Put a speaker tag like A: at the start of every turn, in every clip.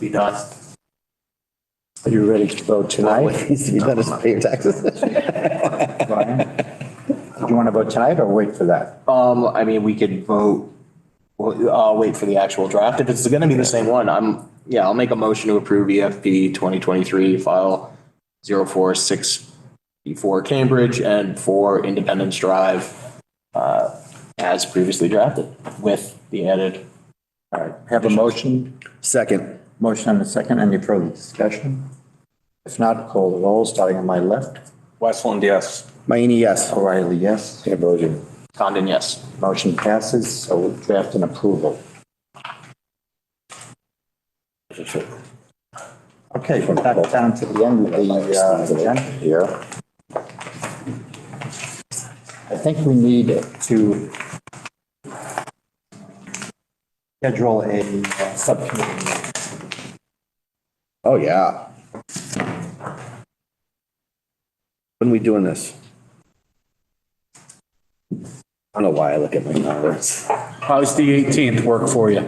A: be done.
B: Are you ready to vote tonight?
C: Needs to be done is pay your taxes.
B: Brian? Do you want to vote tonight or wait for that?
A: Um, I mean, we could vote, well, I'll wait for the actual draft. If it's gonna be the same one, I'm, yeah, I'll make a motion to approve EFP twenty twenty-three file zero four six for Cambridge and for Independence Drive, uh, as previously drafted with the added.
B: All right, have a motion,
C: Second.
B: motion and a second, any further discussion? If not, call the roll, starting on my left.
D: Westland, yes.
C: Mayini, yes.
B: O'Reilly, yes. Cambogia.
A: Condon, yes.
B: Motion passes, so draft and approval. Okay, we're back down to the end of the uh, agenda here. I think we need to schedule a uh, subcommittee. meeting.
C: Oh, yeah. When we doing this? I don't know why I look at my numbers.
E: How's the 18th work for you?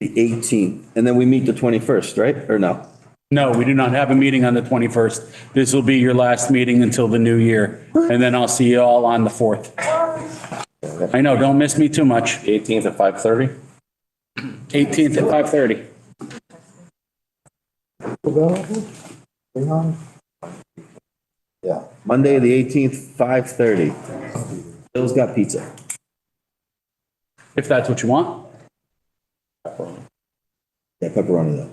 C: The 18th, and then we meet the 21st, right? Or no?
E: No, we do not have a meeting on the 21st. This will be your last meeting until the new year, and then I'll see you all on the 4th. I know, don't miss me too much.
D: 18th at 5:30?
E: 18th at 5:30.
B: Hang on. Yeah.
C: Monday, the 18th, 5:30. Bill's got pizza.
E: If that's what you want.
C: Yeah, pepperoni though.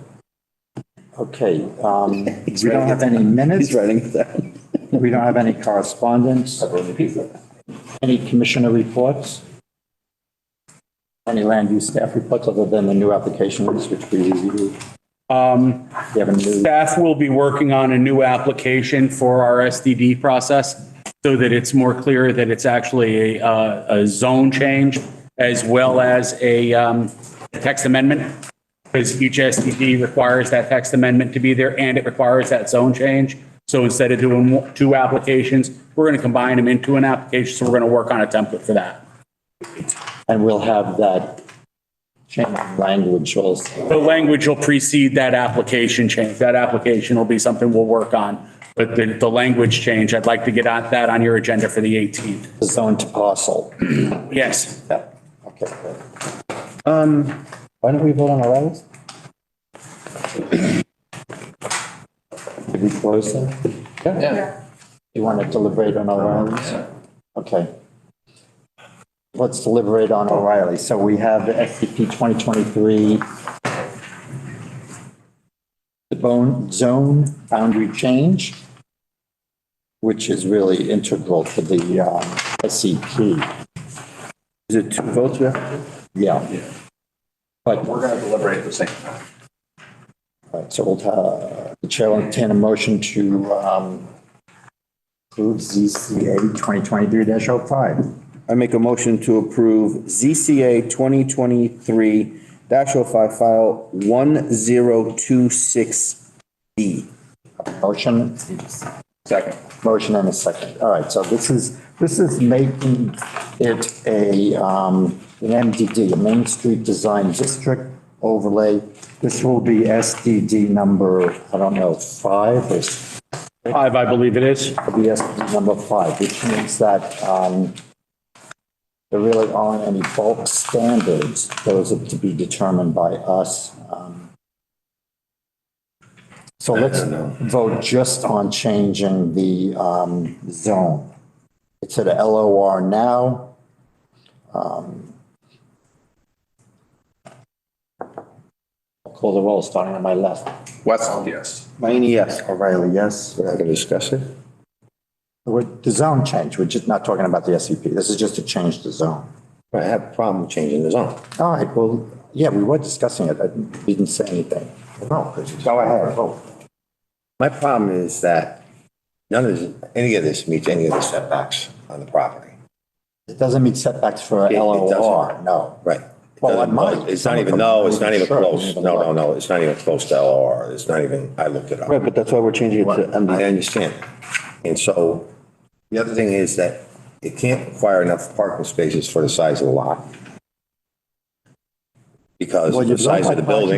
B: Okay, um, we don't have any minutes,
C: He's writing it down.
B: we don't have any correspondence. Any commissioner reports? Any land use staff reports other than the new applications which we reviewed?
E: Um,
B: We have a new,
E: Staff will be working on a new application for our SDD process so that it's more clear that it's actually a, uh, a zone change as well as a um, text amendment. Because each SDD requires that text amendment to be there and it requires that zone change. So instead of doing two applications, we're going to combine them into an application. So we're going to work on a template for that.
B: and we'll have that change in language also.
E: The language will precede that application change. That application will be something we'll work on. But the, the language change, I'd like to get on that on your agenda for the 18th.
B: the zone to parcel.
E: Yes.
B: Yeah, okay. good.
C: Um,
B: Why don't we vote on Arrows? Did we close them?
D: Yeah.
B: You want to deliberate on O'Reilly's? Okay. Let's deliberate on O'Reilly. So we have the SCP 2023 the bone, zone boundary change, which is really integral to the um, SCP.
C: is it two votes we have to do?
B: Yeah. But
D: We're going to deliberate at the same time.
B: All right, so we'll, uh, the chair will entertain a motion to, um, approve ZCA twenty twenty-three oh 5
C: I make a motion to approve ZCA 2023-05 file 1026B.
B: Motion,
D: Second.
B: motion and a second. All right, so this is, this is making it a, um, an MDD, a Main Street Design District overlay. This will be SDD number, I don't know, five or
E: Five, I believe it is.
B: BS number five, which means that um, there really aren't any bulk standards. Those are to be determined by us. um. So let's vote just on changing the um, zone. It's at LOR now. Um, I'll Call the roll, starting on my left.
D: Westland, yes.
C: Mayini, yes.
B: O'Reilly, yes.
C: We're not going to discuss it?
B: With The zone change, we're just not talking about the SCP. This is just to change the zone.
C: I have a problem changing the zone.
B: All right, well, yeah, we were discussing it. I didn't say anything. No, go ahead. vote.
C: My problem is that none of this, any of this meets any of the setbacks on the property.
B: It doesn't meet setbacks for
C: it
B: LOR,
C: doesn't.
B: no.
C: Right.
B: Well, it might.
F: It's not even, no, it's not even close. No, no, no, it's not even close to LOR. It's not even, I looked it
C: Right,
F: up.
C: but uh, that's why we're changing it to
F: I
C: MDD.
F: understand. And so the other thing is that it can't require enough parking spaces for the size of the lot. Because
B: Well,
F: of
B: you
F: the size
B: don't
F: of the
B: have parking
F: building.